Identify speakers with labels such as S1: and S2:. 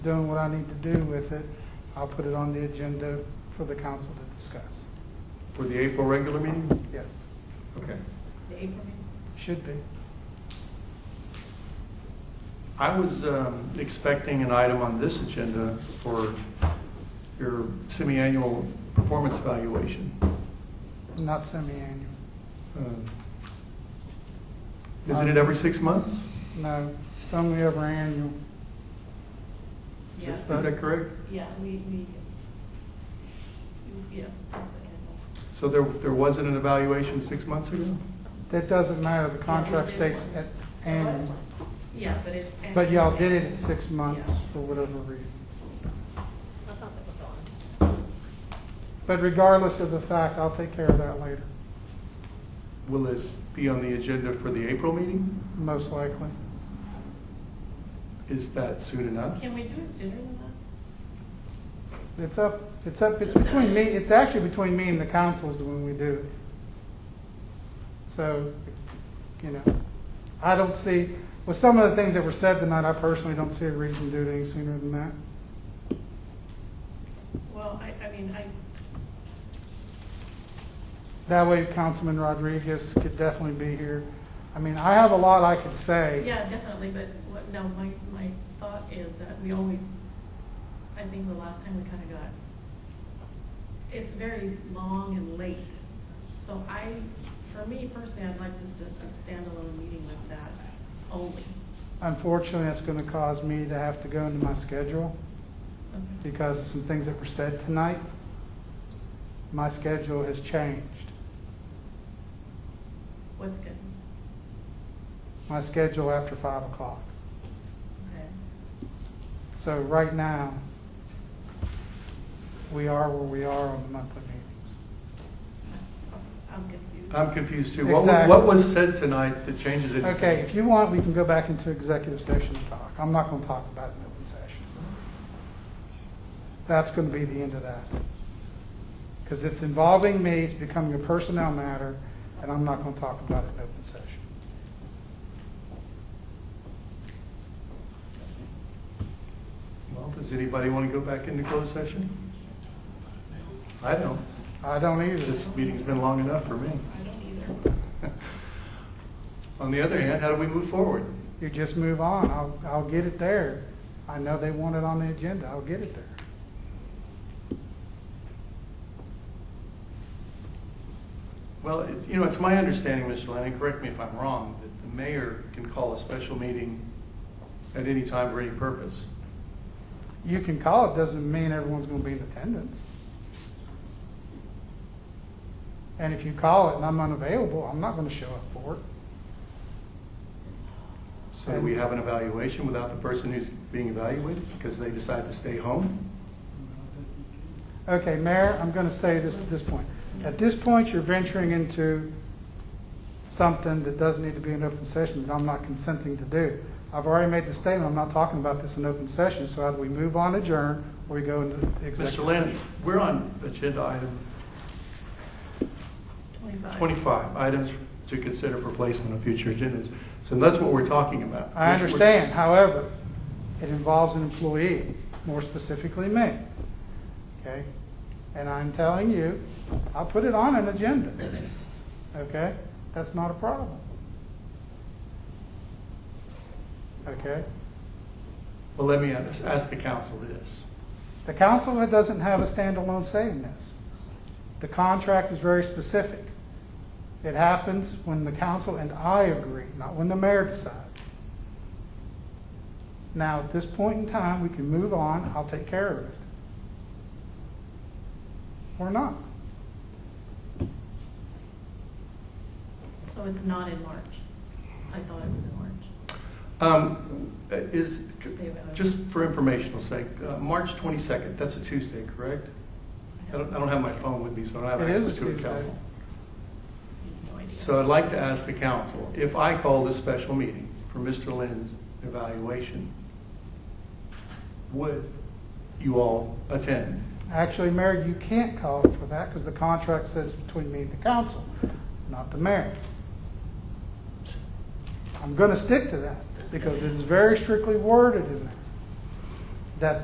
S1: doing what I need to do with it, I'll put it on the agenda for the council to discuss.
S2: For the April regular meeting?
S1: Yes,
S2: Okay.
S3: The April meeting?
S1: should be.
S2: I was um, expecting an item on this agenda for your semi-annual performance evaluation.
S1: Not semi-annual.
S2: Um, Isn't it every six months?
S1: No, it's only ever annual.
S3: Yeah,
S2: Is that correct?
S3: yeah, we, we, yeah, that's annual.
S2: So there, there wasn't an evaluation six months ago?
S1: That doesn't matter, the contract
S3: Yeah, we did
S1: states
S3: one.
S1: at
S3: The last
S1: annual.
S3: one. Yeah, but it's.
S1: But y'all
S3: annual.
S1: did it at six
S3: Yeah.
S1: months for whatever reason.
S3: I thought that was on.
S1: But regardless of the fact, I'll take care of that later,
S2: Will it be on the agenda for the April meeting?
S1: most likely.
S2: Is that soon enough?
S3: Can we do it sooner than that?
S1: It's up, it's up, it's between me, it's actually between me and the council is when we do it. So, you know, I don't see, with some of the things that were said tonight, I personally don't see a reason to do it any sooner than that.
S3: Well, I, I mean, I,
S1: That way Councilman Rodriguez could definitely be here. I mean, I have a lot I could say.
S3: yeah, definitely, but what, no, my, my thought is that we always, I think the last time we kind of got, it's very long and late. So I, for me personally, I'd like just a, a standalone meeting with that only.
S1: Unfortunately, it's going to cause me to have to go into my schedule
S3: Okay.
S1: because of some things that were said tonight. My schedule has changed.
S3: What's good?
S1: My schedule after five o'clock.
S3: Okay.
S1: So right now, we are where we are on the monthly meetings.
S3: I'm confused.
S2: I'm confused too. What, wa-
S1: Exactly.
S2: what was said tonight that changes it?
S1: Okay, if you want, we can go back into executive session and talk. I'm not going to talk about it in open session. That's going to be the end of that. Because it's involving me, it's becoming a personnel matter, and I'm not going to talk about it in open session.
S2: Well, does anybody want to go back into closed session? I don't.
S1: I don't either.
S2: This meeting's been long enough for me.
S3: I don't either.
S2: On the other hand, how do we move forward?
S1: You just move on. I'll, I'll get it there. I know they want it on the agenda. I'll get it there.
S2: Well, it's, you know, it's my understanding, Mr. Lanning, correct me if I'm wrong, that the mayor can call a special meeting at any time for any purpose.
S1: You can call it, doesn't mean everyone's going to be in attendance. And if you call it and I'm unavailable, I'm not going to show up for it.
S2: So do we have an evaluation without the person who's being evaluated because they decide to stay home?
S1: Okay, Mayor, I'm going to say this at this point. At this point, you're venturing into something that does need to be in open session that I'm not consenting to do. I've already made the statement, I'm not talking about this in open session, so either we move on, adjourn, or we go into executive
S2: Mr.
S1: session.
S2: Lanning, we're on agenda item
S3: Twenty-five.
S2: 25, items to consider for placement on future agendas. So that's what we're talking about.
S1: I
S2: Which we're-
S1: understand, however, it involves an employee, more specifically me. Okay? And I'm telling you, I'll put it on an agenda. Okay? That's not a problem. Okay?
S2: Well, let me ask ask the council this.
S1: The council doesn't have a standalone say in this. The contract is very specific. It happens when the council and I agree, not when the mayor decides. Now, at this point in time, we can move on, I'll take care of it. Or not.
S3: So it's not in March. I thought it was in March.
S2: Um, Is,
S3: They were-
S2: just for informational sake, uh, March 22nd, that's a Tuesday, correct? I don't, I don't have my phone with me, so I don't have
S1: It is
S2: access
S1: a
S2: to a
S1: Tuesday.
S2: calendar.
S3: No idea.
S2: So I'd like to ask the council, if I call this special meeting for Mr. Lynn's evaluation, would you all attend?
S1: Actually, Mayor, you can't call for that because the contract says between me and the council, not the mayor. I'm going to stick to that because it's very strictly worded in there.